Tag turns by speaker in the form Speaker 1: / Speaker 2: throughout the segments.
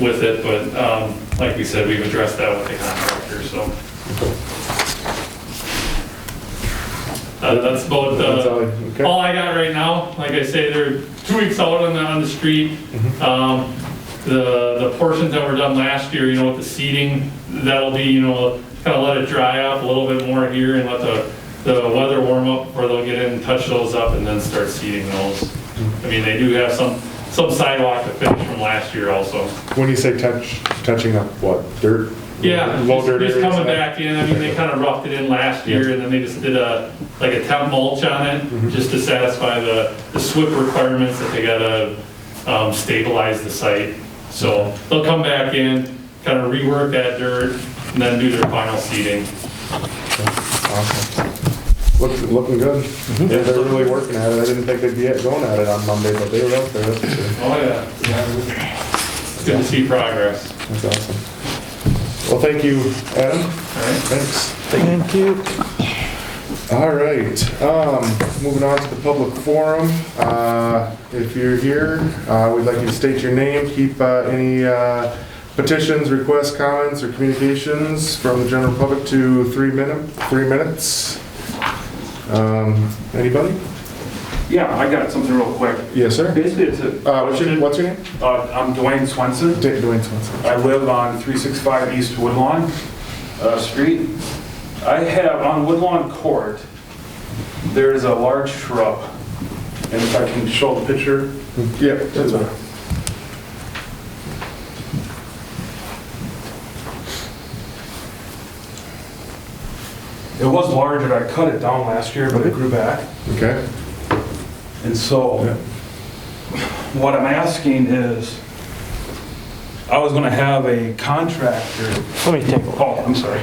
Speaker 1: with it, but um, like we said, we've addressed that with the contractor, so. Uh, That's about,
Speaker 2: That's all,
Speaker 1: uh,
Speaker 2: okay.
Speaker 1: all I got right now. Like I say, they're two weeks out on the, on the street.
Speaker 2: Mm-hmm.
Speaker 1: Um, The, the portions that were done last year, you know, with the seeding, that'll be, you know, kind of let it dry up a little bit more here and let the, the weather warm up where they'll get in, touch those up and then start seeding those.
Speaker 2: Mm-hmm.
Speaker 1: I mean, they do have some, some sidewalk to finish from last year also.
Speaker 2: When you say touch, touching up what, dirt?
Speaker 1: Yeah,
Speaker 2: Low
Speaker 1: just
Speaker 2: dirt
Speaker 1: just
Speaker 2: areas?
Speaker 1: coming back in, I mean, they kind of roughed it in last year, and then they just did a, like a temp mulch on
Speaker 2: Mm-hmm.
Speaker 1: it, just to satisfy the, the SWIP requirements that they gotta um, stabilize the site. So they'll come back in, kind of rework that dirt, and then do their final seeding.
Speaker 2: Look- Looking good. Yeah, They're really working at it. I didn't think they'd be going at it on Monday, but they were out there. That's for sure.
Speaker 1: Oh, yeah. It's Good to see progress.
Speaker 2: That's awesome. Well, thank you, Adam.
Speaker 1: All right.
Speaker 2: Thanks. Thank you. All right, um, moving on to the public forum. Uh, if you're here, uh, we'd like you to state your name, keep, uh, any, uh, petitions, requests, comments, or communications from the general public to three minute, three minutes. Um, anybody?
Speaker 3: Yeah, I got something real quick.
Speaker 2: Yes, sir.
Speaker 3: Basically, it's a,
Speaker 2: Uh, what's your, what's your name?
Speaker 3: uh, I'm Dwayne Swenson.
Speaker 2: Da- Dwayne Swanson.
Speaker 3: I live on 365 East Woodlawn uh, Street. I have, on Woodlawn Court, there is a large shrub, and if I can show the picture.
Speaker 2: Yeah, that's all right.
Speaker 3: It was larger, I cut it down last year, but it grew back.
Speaker 2: Okay,
Speaker 3: And so,
Speaker 2: Yeah.
Speaker 3: what I'm asking is, I was gonna have a contractor,
Speaker 4: Let me take a look.
Speaker 3: oh, I'm sorry.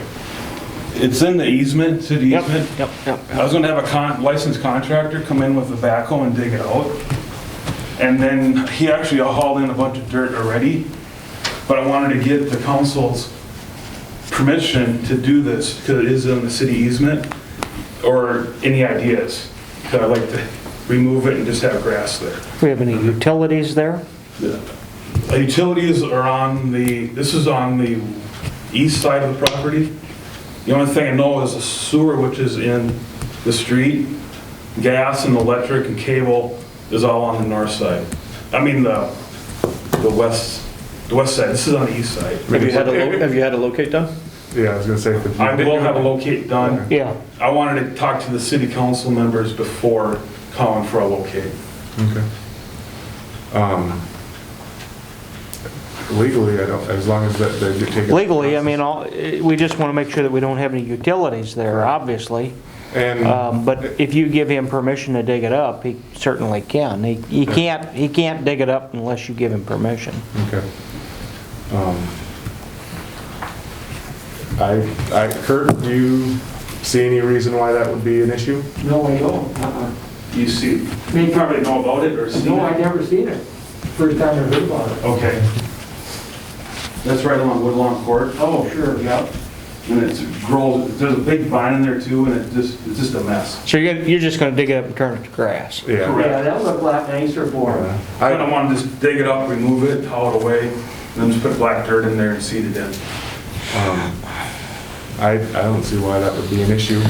Speaker 3: It's in the easement, city easement.
Speaker 4: Yep, yep.
Speaker 3: I was gonna have a con, licensed contractor come in with a backhoe and dig it out. And then he actually hauled in a bunch of dirt already, but I wanted to get the council's permission to do this, because it is in the city easement, or any ideas. 'Cause I'd like to remove it and just have grass there.
Speaker 4: We have any utilities there?
Speaker 3: The Uh, Utilities are on the, this is on the east side of the property. The only thing I know is the sewer, which is in the street, gas and electric and cable is all on the north side. I mean, the, the west, the west side, this is on the east side.
Speaker 5: Have you had a, lo- have you had a locate done?
Speaker 2: yeah, I was gonna say. if you-
Speaker 3: I will have a locate done.
Speaker 4: Yeah.
Speaker 3: I wanted to talk to the city council members before calling for a locate.
Speaker 2: Okay. Um, Legally, I don't, as long as that, they do take. it-
Speaker 4: Legally, I mean, all- eh, we just want to make sure that we don't have any utilities there, obviously.
Speaker 2: And,
Speaker 4: Um, But if you give him permission to dig it up, he certainly can. He he can't, he can't dig it up unless you give him permission.
Speaker 2: okay. Um, I, I, Kurt, do you see any reason why that would be an issue?
Speaker 6: No, I don't. Uh-uh.
Speaker 3: You see, you probably know about it or seen
Speaker 6: No, I
Speaker 3: it.
Speaker 6: never seen it. First time I heard about it.
Speaker 3: Okay. That's right along Woodlawn Court.
Speaker 6: Oh, sure, yeah.
Speaker 3: And it's grows, there's a big vine in there too, and it just, it's just a mess.
Speaker 4: So you're, gonna- you're just going to dig it up and turn it to grass?
Speaker 2: Yeah. Uh,
Speaker 3: Correct.
Speaker 6: Yeah, that looked a lot nicer for uh, him.
Speaker 3: I
Speaker 2: I,
Speaker 3: don't want to just dig it up, remove it, haul it away, and then just put black dirt in there and seed it in.
Speaker 2: I, I don't see why that would be an issue.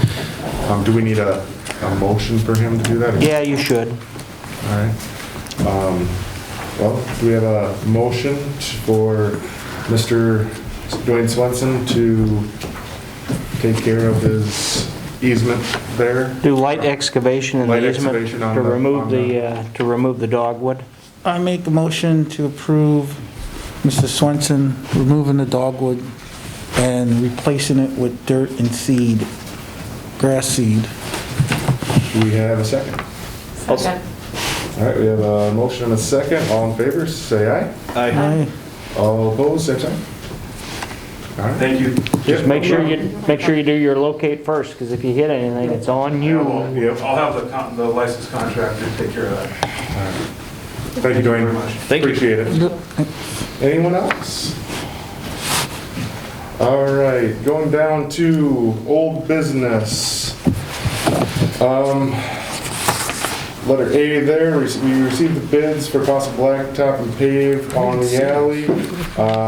Speaker 2: Um, do we need a, a motion for him to do that?
Speaker 4: Yeah, you should.
Speaker 2: All right. Um, Well, we have a motion for Mr. Dwayne Swenson to take care of his easement there.
Speaker 4: Do light excavation in
Speaker 2: Light
Speaker 4: the easement
Speaker 2: excavation on
Speaker 4: to
Speaker 2: the-
Speaker 4: remove
Speaker 2: on
Speaker 4: the, uh, to remove the dogwood?
Speaker 7: I make a motion to approve Mr. Swenson removing the dogwood and replacing it with dirt and seed, grass seed.
Speaker 2: Do we have a second? All right, we have a motion and a second. All in favor, say aye.
Speaker 5: I
Speaker 7: Aye.
Speaker 2: All opposed, same sign. All right.
Speaker 3: Thank you.
Speaker 4: Just make sure you, make sure you do your locate first, because if you hit anything, it's on you.
Speaker 2: Yep.
Speaker 3: I'll have the con- the licensed contractor take care of that.
Speaker 2: Thank you,
Speaker 3: Very
Speaker 2: Dwayne.
Speaker 3: much.
Speaker 5: Thank you.
Speaker 2: Appreciate it. Anyone else? All right, going down to old business. Um, Letter A there, we received the bids for possible blacktop and pave on the alley. Uh,